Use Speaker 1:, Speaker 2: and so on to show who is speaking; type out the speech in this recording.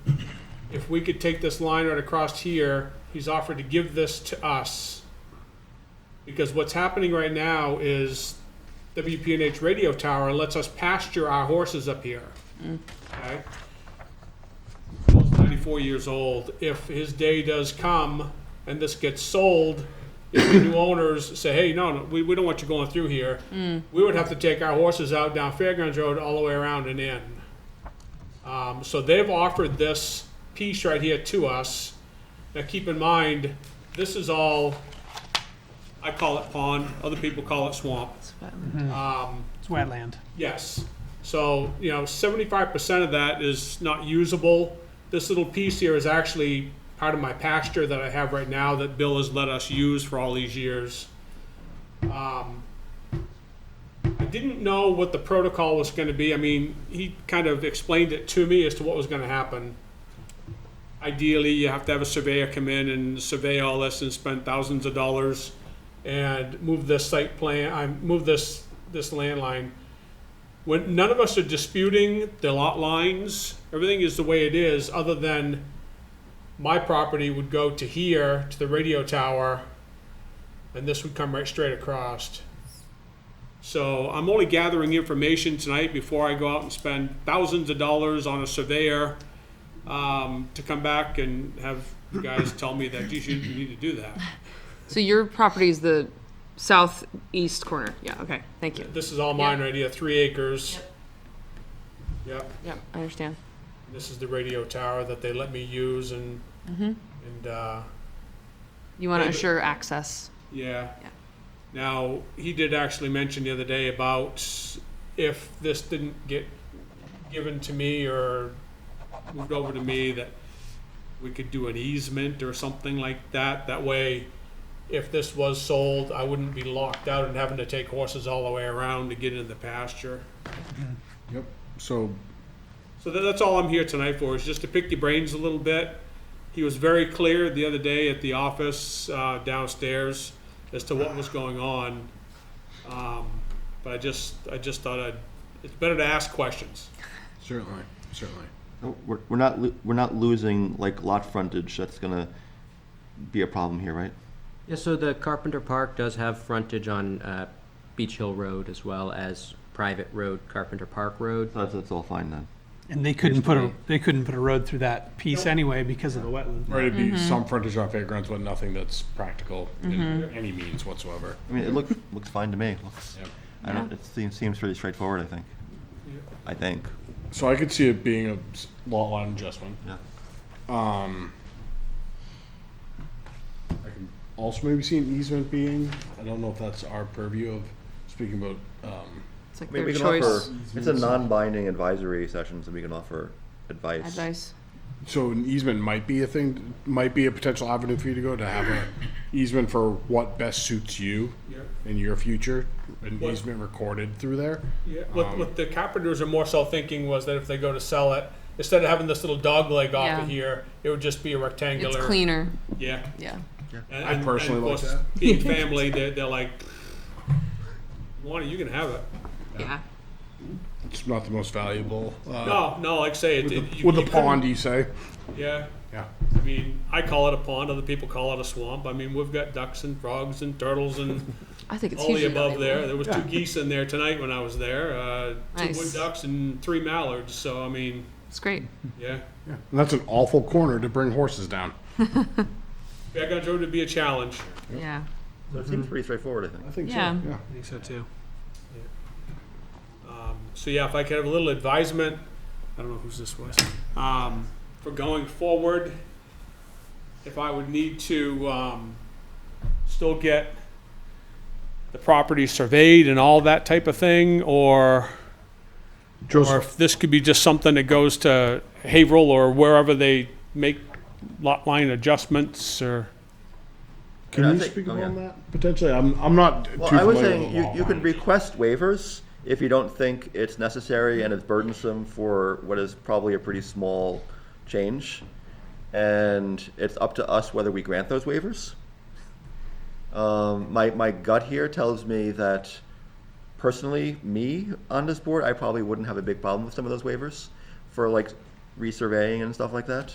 Speaker 1: if we could take this line right across here, he's offered to give this to us. Because what's happening right now is WPNH radio tower lets us pasture our horses up here. Okay? Bill's ninety-four years old. If his day does come and this gets sold, if the new owners say, hey, no, no, we, we don't want you going through here, we would have to take our horses out down Fairgrounds Road all the way around and in. Um, so they've offered this piece right here to us. Now, keep in mind, this is all, I call it pond, other people call it swamp.
Speaker 2: It's wetland.
Speaker 1: Yes. So, you know, seventy-five percent of that is not usable. This little piece here is actually part of my pasture that I have right now that Bill has let us use for all these years. Um, I didn't know what the protocol was gonna be. I mean, he kind of explained it to me as to what was gonna happen. Ideally, you have to have a surveyor come in and survey all this and spend thousands of dollars and move this site plan, I move this, this landline when none of us are disputing the lot lines, everything is the way it is, other than my property would go to here, to the radio tower, and this would come right straight across. So I'm only gathering information tonight before I go out and spend thousands of dollars on a surveyor um, to come back and have you guys tell me that, geez, you you need to do that.
Speaker 3: So your property is the southeast corner. Yeah, okay. Thank you.
Speaker 1: This is all mine right here, three acres. Yep.
Speaker 3: Yeah, I understand.
Speaker 1: This is the radio tower that they let me use and, and, uh,
Speaker 3: You want to
Speaker 1: Yeah, but-
Speaker 3: assure access.
Speaker 1: yeah.
Speaker 3: Yeah.
Speaker 1: Now, he did actually mention the other day about if this didn't get given to me or moved over to me, that we could do an easement or something like that. That way, if this was sold, I wouldn't be locked out and having to take horses all the way around to get into the pasture.
Speaker 4: Yep, so,
Speaker 1: So tha- that's all I'm here tonight for, is just to pick your brains a little bit. He was very clear the other day at the office uh, downstairs as to what was going on. Um, But I just, I just thought I'd, it's better to ask questions.
Speaker 4: certainly, certainly.
Speaker 5: No, We're, we're not, lo- we're not losing like lot frontage, that's gonna be a problem here, right?
Speaker 6: Yeah, so the Carpenter Park does have frontage on uh, Beach Hill Road as well as private road, Carpenter Park Road.
Speaker 5: So That's, that's all fine then.
Speaker 2: And they couldn't put a, they couldn't put a road through that piece anyway because of the wetland.
Speaker 4: Right, it'd be some frontage on fairgrounds, but nothing that's practical in any means whatsoever.
Speaker 5: I mean, it look, looks fine to me, looks,
Speaker 4: Yep.
Speaker 5: I don't, it seems, seems pretty straightforward, I think. I think,
Speaker 4: So I could see it being a s- lot line adjustment. Um,
Speaker 5: yeah.
Speaker 4: I can also maybe see an easement being, I don't know if that's our purview of, speaking about, um,
Speaker 3: It's like
Speaker 5: I mean,
Speaker 3: their
Speaker 5: we can
Speaker 3: choice
Speaker 5: offer, it's a non-binding advisory session, so we can offer advice.
Speaker 3: advice.
Speaker 4: so an easement might be a thing, might be a potential avenue for you to go to have an easement for what best suits you
Speaker 1: Yep.
Speaker 4: in your future, an
Speaker 1: What-
Speaker 4: easement recorded through there.
Speaker 1: Yeah,
Speaker 4: Um,
Speaker 1: What, what the carpenters are more so thinking was that if they go to sell it, instead of having this little dog leg off of
Speaker 3: Yeah.
Speaker 1: here, it would just be a rectangular.
Speaker 3: It's cleaner.
Speaker 1: Yeah.
Speaker 3: Yeah.
Speaker 1: And-
Speaker 4: I
Speaker 1: and- and
Speaker 4: personally
Speaker 1: of
Speaker 4: like
Speaker 1: course,
Speaker 4: that.
Speaker 1: Being family, they're, they're like, Lonnie, you can have it.
Speaker 3: Yeah.
Speaker 4: It's not the most valuable. uh,
Speaker 1: No, no, like I say, it. it- you-
Speaker 4: With the
Speaker 1: you couldn't-
Speaker 4: pond, you say?
Speaker 1: Yeah.
Speaker 4: Yeah.
Speaker 1: I mean, I call it a pond, other people call it a swamp. I mean, we've got ducks and frogs and turtles and
Speaker 3: I think it's
Speaker 1: all the
Speaker 3: hugely
Speaker 1: above there.
Speaker 3: valuable.
Speaker 1: There was two geese in there tonight when I was there, uh, two wood
Speaker 3: Nice.
Speaker 1: ducks and three mallards, so I mean,
Speaker 3: It's great.
Speaker 1: yeah.
Speaker 4: Yeah. And that's an awful corner to bring horses down.
Speaker 1: Fairgrounds Road would be a challenge.
Speaker 3: Yeah.
Speaker 5: So it seems pretty straightforward, I think.
Speaker 4: I think
Speaker 3: so, Yeah.
Speaker 4: Yeah.
Speaker 2: I think so too.
Speaker 1: Um, So yeah, if I could have a little advisement, I don't know whose this was, um, for going forward, if I would need to, um, still get the property surveyed and all that type of thing, or, or
Speaker 4: Joseph,
Speaker 1: if this could be just something that goes to Haverhill or wherever they make lot line adjustments or.
Speaker 4: can
Speaker 5: Yeah, I
Speaker 4: you
Speaker 5: think-
Speaker 4: speak
Speaker 5: oh,
Speaker 4: up
Speaker 5: yeah.
Speaker 4: on that potentially? I'm, I'm not too
Speaker 5: Well, I
Speaker 4: familiar
Speaker 5: was
Speaker 4: with
Speaker 5: saying, you,
Speaker 4: the
Speaker 5: you can
Speaker 4: read.
Speaker 5: request waivers if you don't think it's necessary and it's burdensome for what is probably a pretty small change. And it's up to us whether we grant those waivers. Um, my, my gut here tells me that personally, me on this board, I probably wouldn't have a big problem with some of those waivers for like resurveying and stuff like that.